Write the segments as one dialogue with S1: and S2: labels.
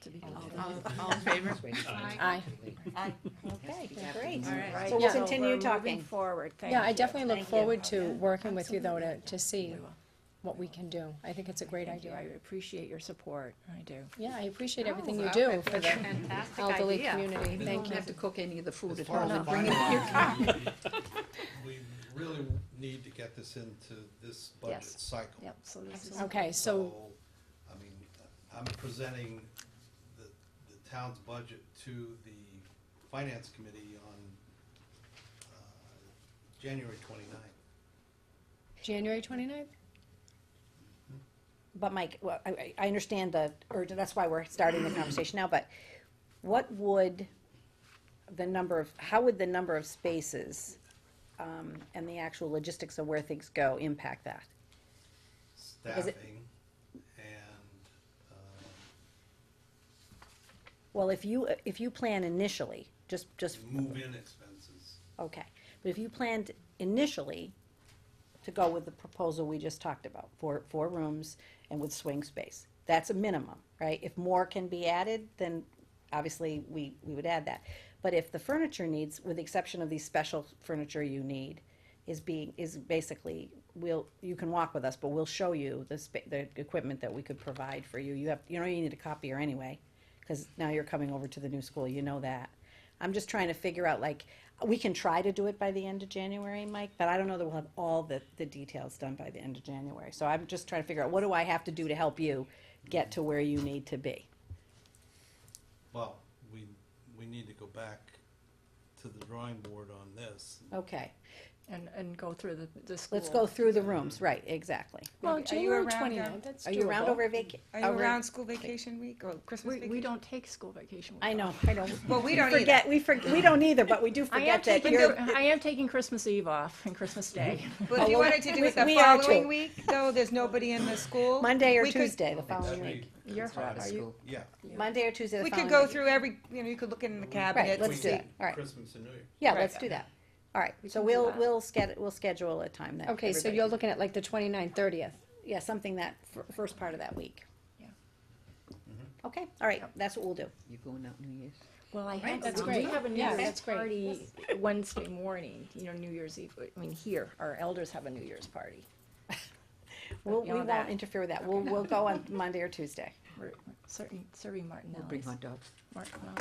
S1: to be.
S2: All, all in favor?
S3: Aye.
S4: Okay, great.
S2: All right.
S4: So
S3: Yeah.
S4: we'll continue
S1: So we're moving
S4: talking. Forward, thank
S3: Yeah, I
S4: you.
S3: definitely look
S4: Thank you.
S3: forward to working with you though to, to see what we can do. I think it's a great
S1: Thank you, I
S3: idea.
S1: appreciate your support, I do.
S3: Yeah, I appreciate everything
S2: Oh,
S3: you
S2: I
S3: do
S2: think
S3: for
S2: that's a
S3: the
S2: fantastic
S3: elderly
S2: idea.
S3: community.
S1: You
S3: Thank
S1: don't
S3: you.
S1: have to cook any of the food at
S5: As far
S1: home
S5: as
S1: and
S5: the
S1: bring it to your car.
S5: We really need to get this into this budget
S1: Yes.
S5: cycle.
S1: Yep, so this is,
S2: Absolutely.
S3: Okay, so,
S5: I mean, I'm presenting the, the town's budget to the finance committee on, uh, January twenty-ninth.
S3: January twenty-ninth?
S4: But Mike, well, I, I- I understand the, or that's why we're starting the conversation now, but what would the number of, how would the number of spaces, um, and the actual logistics of where things go impact that? Is it-
S5: Staffing and, um,
S4: Well, if you, if you plan initially, just, just,
S5: move-in expenses.
S4: okay, but if you planned initially to go with the proposal we just talked about, four, four rooms and with swing space, that's a minimum, right? If more can be added, then obviously we, we would add that. But if the furniture needs, with the exception of these special furniture you need, is being, is basically, we'll, you can walk with us, but we'll show you the spa, the equipment that we could provide for you. You have, you know, you need a copier anyway, cause now you're coming over to the new school, you know that. I'm just trying to figure out, like, we can try to do it by the end of January, Mike, but I don't know that we'll have all the, the details done by the end of January. So I'm just trying to figure out, what do I have to do to help you get to where you need to be?
S5: Well, we, we need to go back to the drawing board on this.
S4: Okay,
S1: and, and go through the, the school.
S4: let's go through the rooms, right, exactly.
S3: Well,
S6: Are you
S3: January
S6: around, Jan?
S3: twenty-ninth, that's
S4: Are you around
S3: doable.
S4: over vac-
S6: Are you
S4: over-
S6: around school vacation week or Christmas
S1: We, we
S6: week?
S1: don't take school vacation.
S4: I know, I don't.
S6: Well, we don't either.
S4: Forget, we forget, we don't either, but we do
S1: I am
S4: forget that
S1: taking,
S4: you're,
S1: I am taking Christmas Eve off and Christmas Day.
S6: But if you
S4: Oh, well,
S6: wanted to do
S4: we-
S6: it the
S4: we are too.
S6: following week, though, there's nobody in the school.
S4: Monday or
S6: we could-
S4: Tuesday, the
S1: Oh,
S4: following
S5: That'd
S4: week.
S5: be-
S1: You're hot, are you?
S5: Yeah.
S4: Monday or Tuesday, the
S6: We
S4: following
S6: could
S4: week.
S6: go through every, you know, you could look in the
S4: Right,
S6: cabinet.
S4: let's do
S5: Between
S4: that, all right.
S5: Christmas and New Year.
S4: Yeah,
S6: Right.
S4: let's do that. All right,
S1: can
S4: so
S1: do
S4: we'll,
S1: that.
S4: we'll sched, we'll schedule a time that
S3: Okay, so
S4: everybody
S3: you're
S4: can-
S3: looking at like the twenty-ninth, thirtieth.
S4: yeah, something that, fir- first part of that week.
S1: Yeah.
S4: Okay, all right, that's what we'll do.
S7: You going out New Year's?
S1: Well, I had,
S3: that's
S1: some- we
S3: great.
S1: have a New
S3: Yeah,
S1: Year's
S3: that's great.
S1: party Wednesday morning, you know, New Year's Eve, I mean, here, our elders have a New Year's party.
S4: We'll, we
S1: beyond
S4: won't
S1: that-
S4: interfere with that. We'll, we'll go on Monday or Tuesday.
S1: We're Serving, serving Martinelli's.
S7: Bring hot dogs.
S1: Martinelli.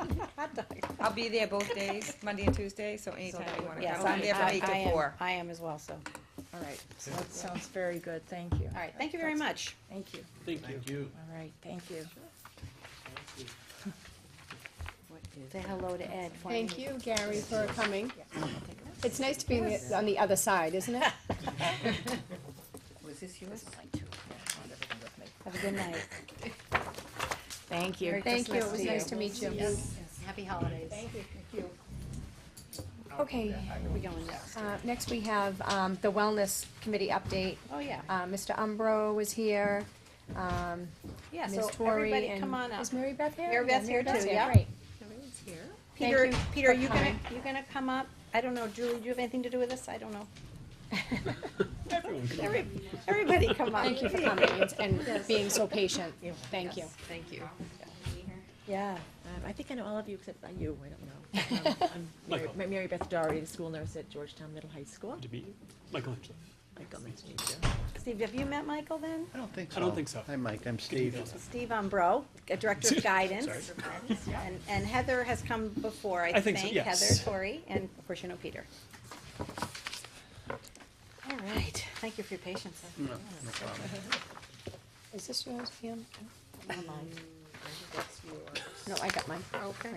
S4: Oh, hot dog.
S6: I'll be there both days, Monday and Tuesday, so anytime you wanna
S4: Yes,
S6: come. I'm
S4: I,
S6: there from eight
S4: I
S6: to
S4: am,
S6: four.
S4: I am as well, so.
S1: All right, so that sounds very good, thank you.
S4: All right, thank you very much.
S1: Thank you,
S5: Thank you.
S1: all right, thank you.
S7: What is?
S4: Say hello to Ed for me.
S3: Thank you, Gary, for coming. It's nice to be on the- on the other side, isn't it?
S7: Was this yours?
S4: Have a good night.
S1: Thank you.
S4: Merry
S3: Thank you,
S4: Christmas
S3: it was
S4: to
S3: nice
S4: you.
S3: to meet you.
S4: Happy holidays. Thank you.
S3: Okay,
S4: Where are we going next?
S3: uh, next we have, um, the Wellness Committee update.
S4: Oh, yeah,
S3: Uh, Mr. Umbro was here, um,
S4: yeah, so
S3: Ms. Torrey and.
S4: everybody come on up.
S3: Is Mary Beth here?
S4: Mary
S3: Yeah,
S4: Beth's here
S3: Beth's
S4: too, yeah.
S3: Great. Thank
S4: Peter,
S3: you
S4: Peter,
S3: for
S4: are you gonna,
S3: coming.
S4: you gonna come up? I don't know, Julie, do you have anything to do with this? I don't know. Every- Everybody come up.
S3: Thank you for coming and- and being so patient. Thank you.
S1: Thank you.
S4: Yeah.
S8: Um, I think I know all of you except uh, you, I don't know. Um, I'm Mary- Ma- Mary Beth Doherty, the school nurse at Georgetown Middle High School.
S9: to meet you. Michelangelo.
S8: Michael, nice to meet you.
S4: Steve, have you met Michael then?
S10: I don't think so.
S9: I don't think so.
S10: Hi, Mike, I'm Steve.
S4: Steve Umbro, Director of Guidance. And, and Heather has come before, I
S9: I think
S4: think.
S9: so,
S4: Heather
S9: yes.
S4: Torrey, and of course you know Peter. All right, thank you for your patience.
S3: Is this yours, Pam? No, I got mine. Okay.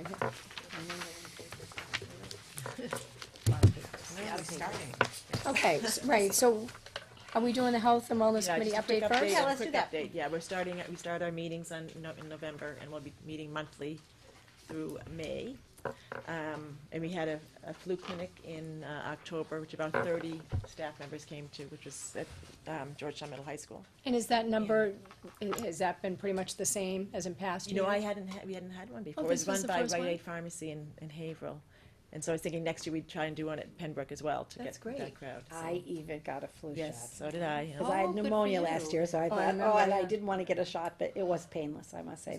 S3: Okay, s- right, so are we doing the Health and Wellness
S8: Yeah,
S3: Committee
S8: just a quick
S3: update first?
S4: Yeah,
S8: a
S4: let's do
S8: quick
S4: that.
S8: update. Yeah, we're starting, we start our meetings on, No- in November, and we'll be meeting monthly through May. Um, and we had a, a flu clinic in, uh, October, which about thirty staff members came to, which was at, um, Georgetown Middle High School.
S3: And is that number, i- has that been pretty much the same as in past
S8: You
S3: years?
S8: know, I hadn't, had- we hadn't had
S10: Oh,
S8: one before. It
S3: this
S8: was
S3: was
S8: run
S3: the
S8: by
S3: first
S8: Rite
S3: one?
S8: Aid Pharmacy in, in Haverhill. And so I was thinking next year we'd try and do one at Pembroke as well to
S3: That's
S8: get
S3: great.
S8: that crowd. so-
S4: I even got a flu shot.
S8: Yes, so did I. yeah.
S4: Because I
S1: Oh,
S4: had
S1: good for
S4: pneumonia
S1: you.
S4: last year, so I
S3: I
S4: thought, oh,
S3: remember
S4: and I
S3: that.
S4: didn't want to get a shot, but it was painless, I must say.